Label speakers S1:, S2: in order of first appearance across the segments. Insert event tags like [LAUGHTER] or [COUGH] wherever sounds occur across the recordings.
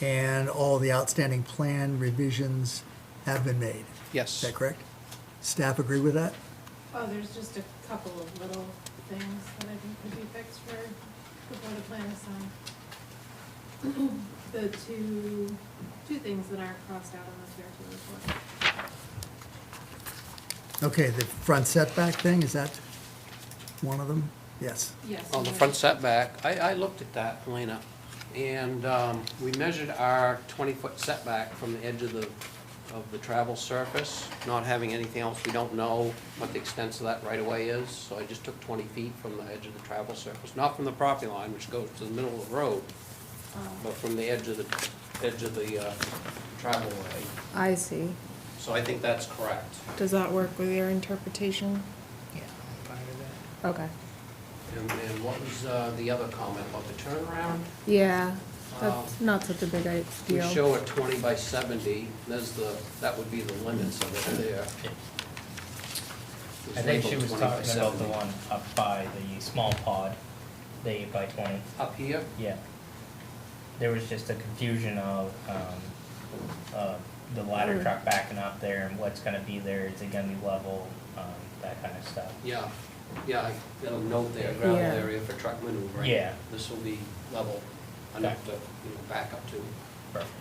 S1: and all the outstanding plan revisions have been made. Is
S2: Yes.
S1: that correct? Staff agree with that?
S3: Oh, there's just a couple of little things that I think could be fixed for, before the plan is signed. [CLEARS THROAT] The two, two things that aren't crossed out on the CRT report.
S1: Okay, the front setback thing, is that one of them? Yes.
S3: Yes.
S2: On the front setback, I, I looked at that, Elena, and um, we measured our 20-foot setback from the edge of the, of the travel surface, not having anything else. We don't know what the extent of that right-of-way is, so I just took 20 feet from the edge of the travel surface, not from the property line, which goes to the middle of the road, but from the edge of the, edge of the uh, travel way.
S4: I see.
S2: So I think that's correct.
S5: Does that work with your interpretation?
S4: Okay.
S2: And and what was uh, the other comment about the turnaround?
S4: Yeah,
S2: Um,
S4: that's not such a big i-
S2: We
S4: deal.
S2: show a 20 by 70, there's the, that would be the limits of it there.
S6: I think she
S2: It's
S6: was
S2: labeled 20 by
S6: talking about the
S2: 70.
S6: one up by the small pod, the eight by twenty,
S2: Up here,
S6: yeah. There was just a confusion of, um, uh, the ladder truck backing up there and what's gonna be there, is it gonna be level, um, that kind of stuff.
S2: yeah, yeah, I got a note there, gravel
S4: Yeah.
S2: area for truck maneuvering.
S6: Yeah.
S2: This will be level enough to, you know, back up to.
S6: Perfect.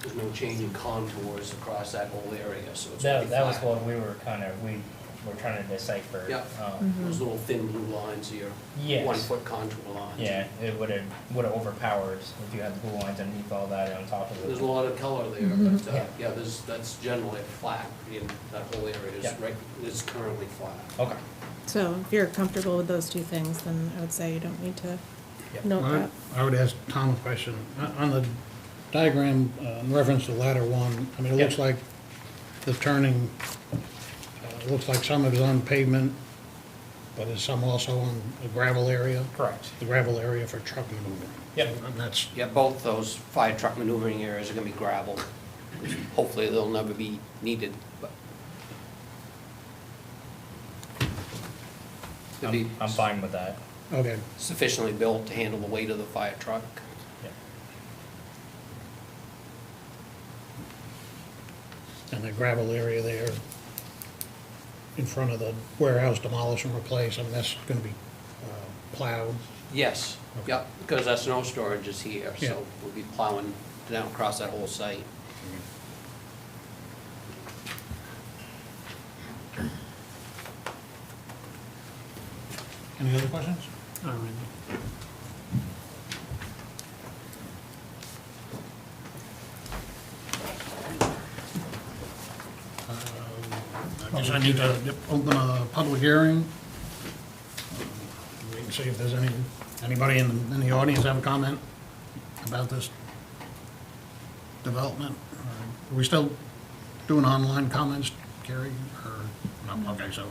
S2: There's no change in contours across that whole area, so it's pretty
S6: That, that was
S2: flat.
S6: what we were kinda, we were trying to decipher.
S2: Yeah.
S6: Um,
S2: Those little thin blue lines here.
S6: Yes.
S2: One-foot contour lines.
S6: yeah, it would've, would've overpowered if you had the blue lines underneath all that on top of it.
S2: There's a lot of color there, but, uh,
S6: Mm-hmm. Yeah.
S2: yeah, there's, that's generally flat, in that whole area
S6: Yeah.
S2: is right, is currently flat.
S6: Okay.
S5: So if you're comfortable with those two things, then I would say you don't need to
S6: Yep.
S5: note
S7: Well,
S5: that.
S7: I I would ask Tom a question. On- On the diagram uh, in reference to ladder one, I mean, it looks
S6: Yeah.
S7: like the turning, uh, it looks like some of it is on pavement, but is some also on a gravel area?
S6: Correct.
S7: The gravel area for truck maneuvering.
S6: Yep.
S7: And that's,
S2: Yeah, both those fire truck maneuvering areas are gonna be gravel. Hopefully, they'll never be needed, but. They'll be
S6: I'm, I'm fine with that.
S7: okay.
S2: sufficiently built to handle the weight of the fire truck.
S6: Yep.
S7: And the gravel area there in front of the warehouse demolish and replace, I mean, that's going to be uh, plowed.
S2: Yes, yeah, because that snow storage is here,
S7: Yeah.
S2: so we'll be plowing down across that whole site.
S7: Any other questions? All right. Um, I guess I need to open a public hearing. We can see if there's any, anybody in, in the audience have a comment about this development? Uh, Are we still doing online comments, Carrie, or, no, okay, so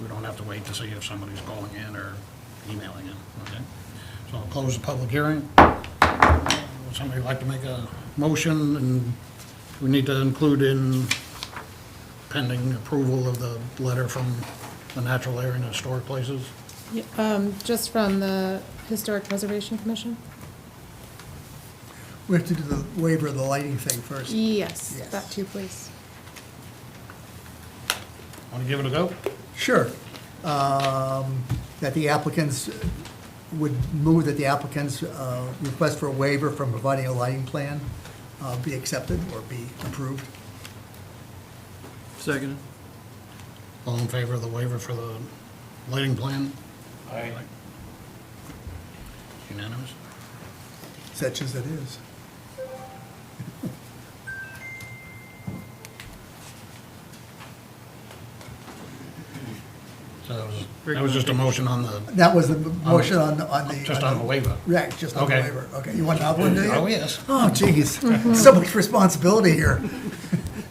S7: we don't have to wait to see if somebody's calling in or emailing in, okay? So I'll close the public hearing. Would somebody like to make a motion, and we need to include in pending approval of the letter from the Natural Area and Historic Places?
S5: Yeah, Um, just from the Historic Preservation Commission?
S1: We have to do the waiver of the lighting thing first.
S5: Yes,
S1: Yes.
S5: that too, please.
S7: Want to give it a go?
S1: Sure. Um, That the applicants, would move that the applicant's uh, request for a waiver from providing a lighting plan uh, be accepted or be approved.
S8: Second.
S7: All in favor of the waiver for the lighting plan?
S6: Aye.
S7: Unanimous?
S1: Such as it is.
S7: So that was, that was just a motion on the,
S1: That was the motion on, on the.
S7: just on the waiver?
S1: Yeah, just on the
S7: Okay.
S1: waiver. Okay, you want another one, do you?
S7: Oh, yes.
S1: Oh, jeez, so much responsibility here. [LAUGHS]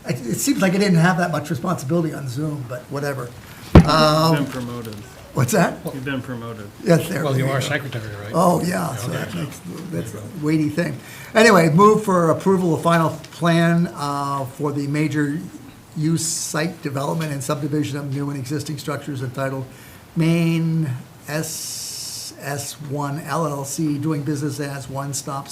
S1: I- It seems like I didn't have that much responsibility on Zoom, but whatever.
S8: You've been promoted.
S1: What's that?
S8: You've been promoted.
S1: Yes, there.
S7: Well, you
S1: we
S7: are
S1: go.
S7: secretary, right?
S1: Oh, yeah, so that makes, that's a weighty thing. Anyway, move for approval of final plan uh, for the major use site development and subdivision of new and existing structures entitled Maine SS1 LLC, doing business as One Stop